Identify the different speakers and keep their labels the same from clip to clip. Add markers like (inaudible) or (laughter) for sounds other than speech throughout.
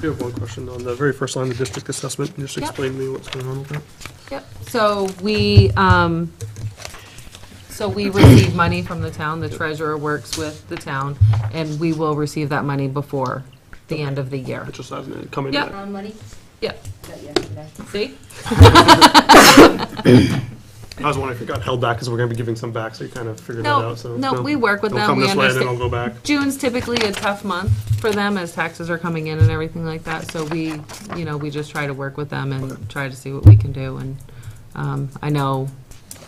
Speaker 1: do have one question on the very first line, the district assessment. Just
Speaker 2: Yep.
Speaker 1: explain to me what's going on with that.
Speaker 2: Yep, so we, um, so we receive money from the town, the treasurer works with the town, and we will receive that money before the end of the year.
Speaker 1: It just hasn't come in
Speaker 2: Yep.
Speaker 1: yet.
Speaker 3: Town money?
Speaker 2: Yep,
Speaker 3: Got yesterday.
Speaker 2: see?
Speaker 1: I was wondering if it got held back because we're going to be giving some back, so you kind of figured that
Speaker 2: No,
Speaker 1: out, so.
Speaker 2: no, we work with
Speaker 1: They'll
Speaker 2: them,
Speaker 1: come
Speaker 2: we
Speaker 1: this way and then I'll
Speaker 2: understand.
Speaker 1: go back.
Speaker 2: June's typically a tough month for them as taxes are coming in and everything like that, so we, you know, we just try to work with them and try to see what we can do, and, um, I know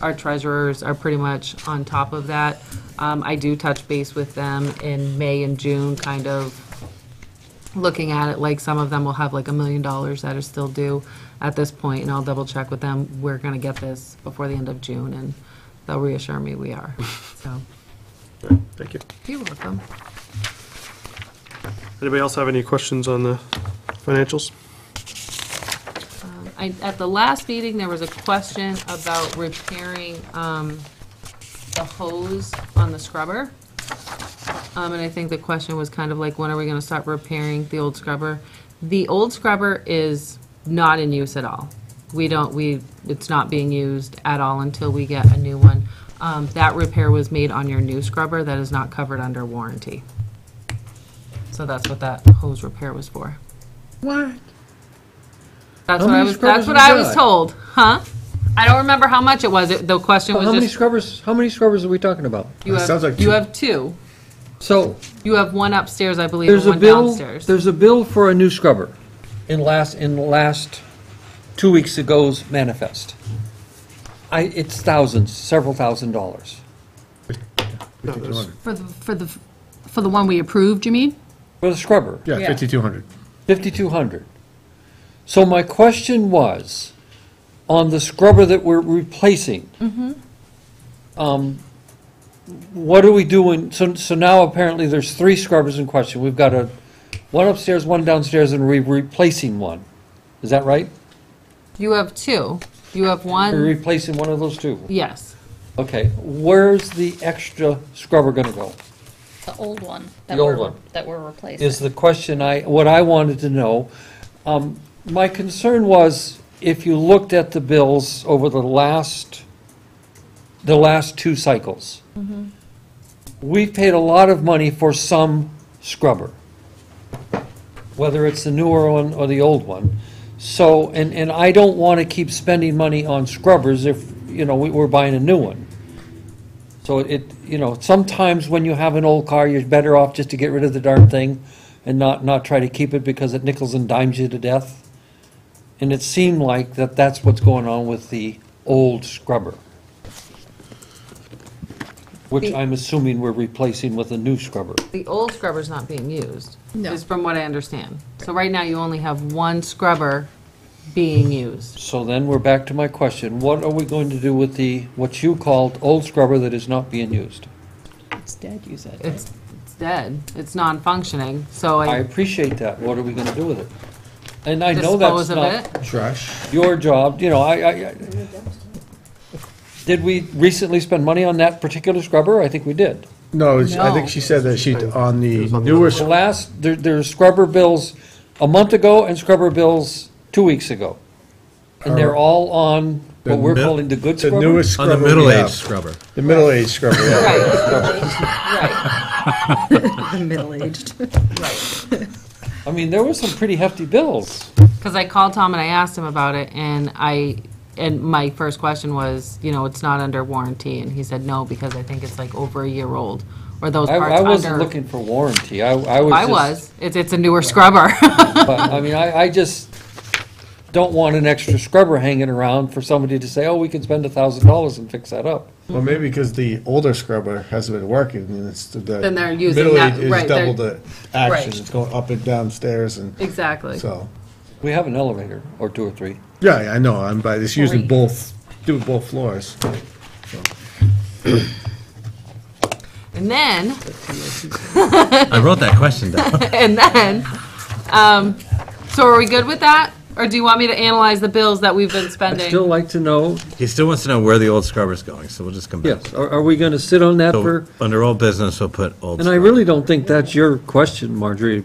Speaker 2: our treasurers are pretty much on top of that. Um, I do touch base with them in May and June, kind of looking at it, like some of them will have like a million dollars that are still due at this point, and I'll double check with them, we're gonna get this before the end of June, and they'll reassure me we are, so,
Speaker 1: Alright, Thank you.
Speaker 2: you're welcome.
Speaker 1: Anybody else have any questions on the financials?
Speaker 2: I, at the last meeting, there was a question about repairing, um, the hose on the scrubber. Um, and I think the question was kind of like, when are we gonna start repairing the old scrubber? The old scrubber is not in use at all. We don't, we, it's not being used at all until we get a new one. Um, that repair was made on your new scrubber, that is not covered under warranty. So that's what that hose repair was for.
Speaker 4: What?
Speaker 2: That's
Speaker 4: How
Speaker 2: what I
Speaker 4: many
Speaker 2: was,
Speaker 4: scrubbers
Speaker 2: that's what
Speaker 4: you
Speaker 2: I was
Speaker 4: got?
Speaker 2: told, huh? I don't remember how much it was, It- the question
Speaker 4: How many
Speaker 2: was just,
Speaker 4: scrubbers, how many scrubbers are we talking about?
Speaker 2: you
Speaker 5: It sounds
Speaker 2: have,
Speaker 5: like
Speaker 2: you
Speaker 5: two.
Speaker 2: have two.
Speaker 4: So,
Speaker 2: You have one upstairs, I believe, and
Speaker 4: there's a
Speaker 2: one
Speaker 4: bill,
Speaker 2: downstairs.
Speaker 4: there's a bill for a new scrubber in last, in last, two weeks ago's manifest. I, it's thousands, several thousand dollars.
Speaker 5: Fifty-two hundred.
Speaker 6: For the, for the, for the one we approved, you mean?
Speaker 4: For the scrubber,
Speaker 2: Yeah.
Speaker 5: Yeah, fifty-two hundred.
Speaker 4: fifty-two hundred. So my question was, on the scrubber that we're replacing. Um, what do we do when, so, so now apparently there's three scrubbers in question. We've got a, one upstairs, one downstairs, and we're replacing one. Is that right?
Speaker 2: You have two. You have
Speaker 4: We're
Speaker 2: one,
Speaker 4: replacing one of those two.
Speaker 2: yes.
Speaker 4: Okay, where's the extra scrubber gonna go?
Speaker 7: The old one.
Speaker 4: The
Speaker 7: that
Speaker 4: old
Speaker 7: we're-
Speaker 4: one.
Speaker 7: That we're replacing.
Speaker 4: is the question I, what I wanted to know. Um, My concern was, if you looked at the bills over the last, the last two cycles, we've paid a lot of money for some scrubber, whether it's the newer one or the old one. So, and, and I don't want to keep spending money on scrubbers if, you know, we- we're buying a new one. So it, you know, sometimes when you have an old car, you're better off just to get rid of the darn thing and not, not try to keep it because it nickels and dimes you to death. And it seemed like that that's what's going on with the old scrubber. Which I'm assuming we're replacing with a new scrubber.
Speaker 2: The old scrubber's not being used,
Speaker 6: No.
Speaker 2: is from what I understand. So right now, you only have one scrubber being used.
Speaker 4: So then we're back to my question. What are we going to do with the, what you called old scrubber that is not being used?
Speaker 6: It's dead, you said.
Speaker 2: It's, it's dead. It's non-functioning, so
Speaker 4: I
Speaker 2: I
Speaker 4: appreciate that. What are we gonna do with it? And I know that's
Speaker 2: dispose of
Speaker 4: not.
Speaker 2: it.
Speaker 5: Trash.
Speaker 4: your job, you know, I, I, I- did we recently spend money on that particular scrubber? I think we did.
Speaker 5: No, it's- I
Speaker 6: No.
Speaker 5: think she said that she, on the
Speaker 1: was on the
Speaker 5: newer,
Speaker 4: The
Speaker 5: sc-
Speaker 4: last, there, there were scrubber bills a month ago and scrubber bills two weeks ago. And they're all on what we're
Speaker 5: The mi-
Speaker 4: calling the good
Speaker 5: the
Speaker 4: scrubber.
Speaker 5: newest
Speaker 8: On the
Speaker 5: scrubber we
Speaker 8: middle-aged
Speaker 5: have.
Speaker 8: scrubber.
Speaker 5: The middle-aged scrubber, yeah. (laughs)
Speaker 2: Right, right.
Speaker 6: The middle-aged.
Speaker 4: I mean, there were some pretty hefty bills.
Speaker 2: Because I called Tom and I asked him about it, and I, and my first question was, you know, it's not under warranty, and he said no, because I think it's like over a year old, or those
Speaker 4: I,
Speaker 2: parts
Speaker 4: I
Speaker 2: under.
Speaker 4: wasn't looking for warranty. I, I was
Speaker 2: I
Speaker 4: just-
Speaker 2: was, it's, it's a newer scrubber.
Speaker 4: (laughs) But, I mean, I, I just don't want an extra scrubber hanging around for somebody to say, oh, we can spend a thousand dollars and fix that up.
Speaker 5: Well, maybe because the older scrubber hasn't been working, and it's the.
Speaker 2: Then they're using that- right, they're-
Speaker 5: Double the action,
Speaker 2: right.
Speaker 5: it's going up and downstairs, and
Speaker 2: (laughs) Exactly.
Speaker 5: so,
Speaker 4: We have an elevator, or two or three.
Speaker 5: yeah, yeah, I know, I'm, but it's using
Speaker 6: Great.
Speaker 5: both, do both floors.
Speaker 2: And then, (laughs)
Speaker 8: I wrote that question down.
Speaker 2: and then, um, so are we good with that? Or do you want me to analyze the bills that we've been
Speaker 4: I'd
Speaker 2: spending?
Speaker 4: still like to know,
Speaker 8: (laughs) He still wants to know where the old scrubber's going, so we'll just come back.
Speaker 4: yes, are, are we gonna sit on that
Speaker 8: So,
Speaker 4: for,
Speaker 8: under old business, we'll put old.
Speaker 4: and I
Speaker 8: scrubber.
Speaker 4: really don't think that's your question, Marjorie,